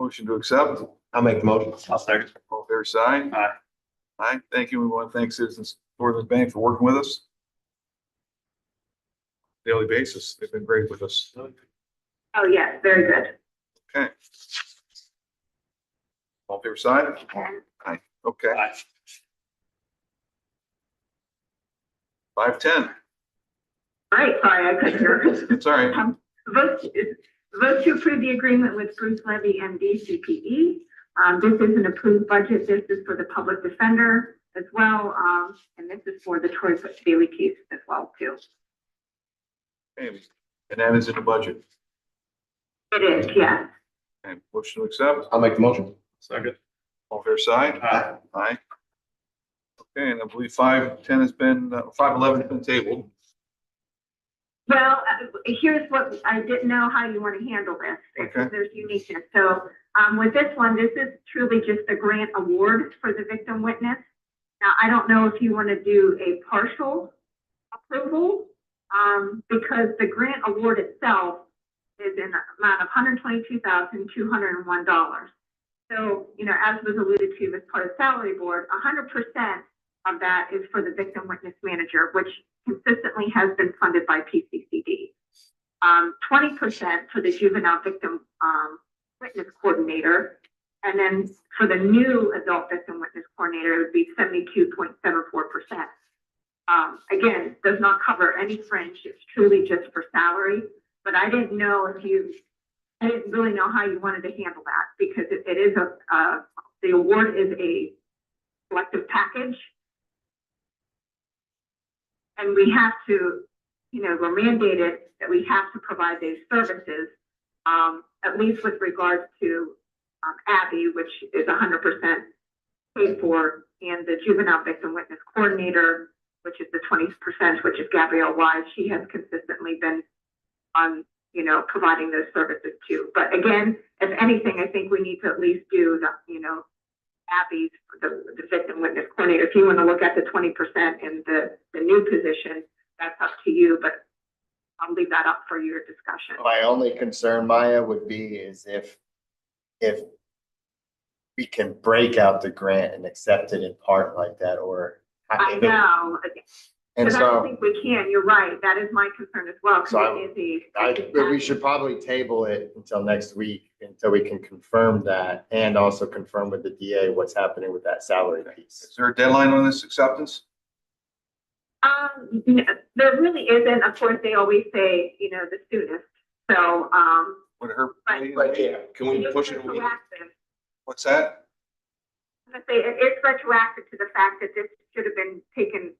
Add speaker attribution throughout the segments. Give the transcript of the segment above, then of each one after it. Speaker 1: Motion to accept,
Speaker 2: I'll make the motion.
Speaker 3: I'll second.
Speaker 1: all fair side.
Speaker 3: Aye.
Speaker 1: Aye, thank you. We want to thank Citizens Northern Bank for working with us. Daily basis, they've been great with us.
Speaker 4: Oh, yes, very good.
Speaker 1: Okay. All fair side? Aye, okay.
Speaker 3: Aye.
Speaker 1: Five ten,
Speaker 4: All right, sorry, I couldn't hear.
Speaker 1: it's all right.
Speaker 4: Vote, vote to approve the agreement with Bruce Levy and DCPE. Um, this is an approved budget. This is for the public defender as well. Um, and this is for the Troy Bailey case as well too.
Speaker 1: And that is in the budget.
Speaker 4: It is, yes.
Speaker 1: And motion to accept,
Speaker 2: I'll make the motion.
Speaker 3: Second.
Speaker 1: all fair side?
Speaker 2: Uh,
Speaker 3: Aye.
Speaker 1: Aye. Okay, and I believe five ten has been, uh, five eleven has been tabled.
Speaker 4: Well, uh, here's what, I didn't know how you want to handle this.
Speaker 1: Okay.
Speaker 4: There's uniqueness. So, um, with this one, this is truly just a grant award for the victim witness. Now, I don't know if you want to do a partial approval, um, because the grant award itself is in the amount of hundred twenty-two thousand, two hundred and one dollars. So, you know, as was alluded to as part of salary board, hundred percent of that is for the victim witness manager, which consistently has been funded by PCCD. Um, twenty percent for the juvenile victim, um, witness coordinator. And then for the new adult victim witness coordinator, it would be seventy-two point seven four percent. Um, again, does not cover any fringe, it's truly just for salary, but I didn't know if you, I didn't really know how you wanted to handle that, because it- it is a, uh, the award is a collective package. And we have to, you know, we're mandated that we have to provide these services, um, at least with regards to, um, Abby, which is hundred percent paid for, and the juvenile victim witness coordinator, which is the twenty percent, which is Gabrielle Wise, she has consistently been on, you know, providing those services too. But again, if anything, I think we need to at least do the, you know, Abby's, the, the victim witness coordinator, if you want to look at the twenty percent and the, the new position, that's up to you, but I'll leave that up for your discussion.
Speaker 5: My only concern, Maya, would be is if, if we can break out the grant and accept it in part like that, or.
Speaker 4: I know,
Speaker 5: And
Speaker 4: but I don't
Speaker 5: so,
Speaker 4: think we can, you're right, that is my concern as well,
Speaker 5: So I-
Speaker 4: because it is a.
Speaker 5: I, but we should probably table it until next week, until we can confirm that, and also confirm with the DA what's happening with that salary piece.
Speaker 1: Is there a deadline on this acceptance?
Speaker 4: Um, n- there really isn't, of course, they always say, you know, the soonest, so, um.
Speaker 1: Would it hurt?
Speaker 4: Right,
Speaker 2: can
Speaker 4: it's retroactive.
Speaker 1: What's that?
Speaker 4: I'm gonna say, it is retroactive to the fact that this should have been taken,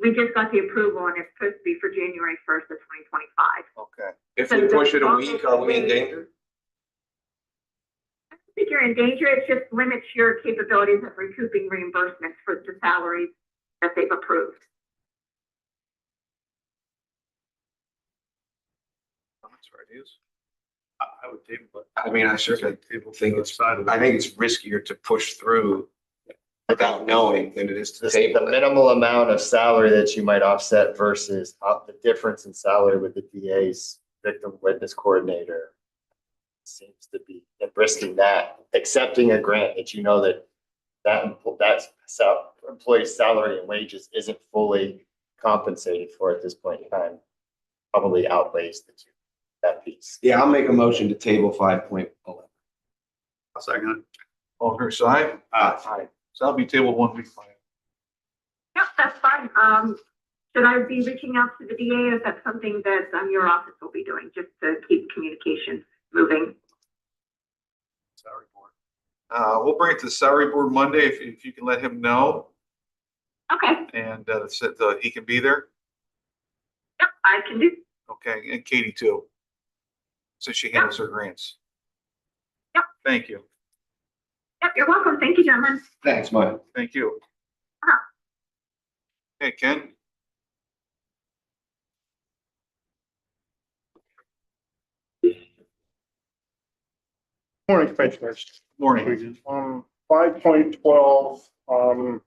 Speaker 4: we just got the approval and it's supposed to be for January first of twenty twenty-five.
Speaker 1: Okay,
Speaker 2: If
Speaker 4: we push it a week, are we in
Speaker 2: danger?
Speaker 4: I don't think you're in danger, it just limits your capabilities of recouping reimbursements for the salaries that they've approved.
Speaker 1: comments or ideas?
Speaker 3: I I would table, but.
Speaker 2: I mean, I certainly
Speaker 3: Table.
Speaker 2: think
Speaker 3: to the
Speaker 2: it's-
Speaker 3: Side of it.
Speaker 2: I think it's riskier to push through without knowing than it is to
Speaker 5: This is the
Speaker 2: table it.
Speaker 5: minimal amount of salary that you might offset versus uh, the difference in salary with the DA's victim witness coordinator. Seems to be and risking that, accepting a grant that you know that that, empl- that sal- employee's salary and wages isn't fully compensated for at this point in time. Probably outweighs the two, that piece.
Speaker 2: Yeah, I'll make a motion to table five point oh. eleven.
Speaker 3: I'll second
Speaker 1: All fair side?
Speaker 3: it. Aye.
Speaker 1: So that'll be tabled one week. from now.
Speaker 4: Yep, that's fine, um, should I be reaching out to the DA, is that something that, um, your office will be doing, just to keep communication moving?
Speaker 3: Salary board.
Speaker 1: Uh, we'll bring it to the salary board Monday if, if you can let him know
Speaker 4: Okay,
Speaker 1: and, uh, so that he can be there.
Speaker 4: yep, I can do,
Speaker 1: Okay, and Katie too. Since she handles her grants.
Speaker 4: Yep.
Speaker 1: Thank you,
Speaker 4: yep, you're welcome, thank you, gentlemen.
Speaker 2: Thanks, Mike.
Speaker 1: thank you.
Speaker 4: Uh-huh.
Speaker 1: Hey, Ken?
Speaker 6: Morning, Commissioners.
Speaker 1: Morning.
Speaker 6: Um, five point twelve, um,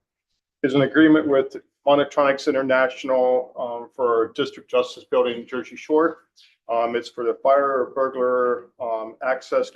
Speaker 6: is an agreement with Monotronics International, um, for District Justice Building in Jersey Shore. Um, it's for the fire or burglar, um, access